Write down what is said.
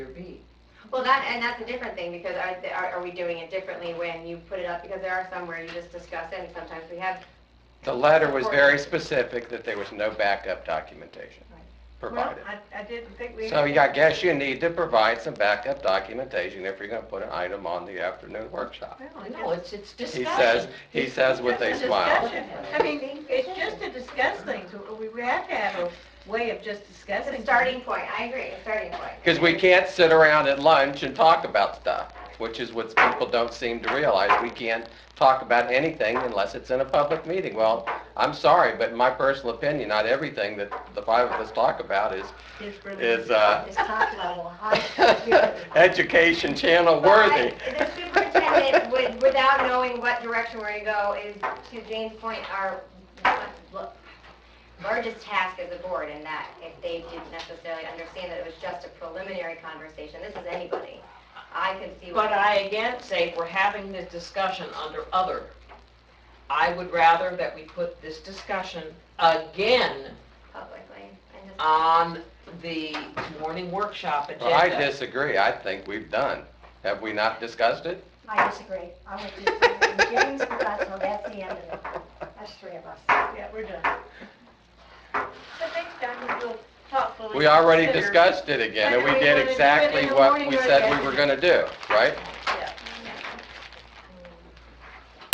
or B. Well, that, and that's a different thing, because are, are, are we doing it differently when you put it up, because there are some where you just discuss it, and sometimes we have, The letter was very specific that there was no backup documentation provided. Well, I, I didn't think we. So yeah, I guess you need to provide some backup documentation if you're gonna put an item on the afternoon workshop. Well, No, it's, it's He discussion. says, he says with a It's just smile. discussion. I mean, it's just to discuss things, we, we have to have a way of just it's discussing. a starting point, I agree, a starting point. Because we can't sit around at lunch and talk about stuff, which is what people don't seem to realize. We can't talk about anything unless it's in a public meeting. Well, I'm sorry, but in my personal opinion, not everything that the five of us talk about is, things. It's really- is, uh, It's top level, high. education channel But I- worthy. The superintendent, would, without knowing what direction we're gonna go, is, to Jane's point, our lo- largest task as a board, in that if they didn't necessarily understand that it was just a preliminary conversation, this is anybody, I can see what. But I again say, if we're having this discussion under other, I would rather that we put this discussion again Publicly, and just. on the morning workshop Well, I agenda. disagree. I think we've done. Have we not discussed it? I disagree. I would disagree. James, Russell, that's the end of it. That's three of us. uh, Yeah, we're done. So next time we'll thoughtfully. We already consider- discussed it again, and we Whether we did wanted to do it in exactly the what morning we or said we the were gonna do, right?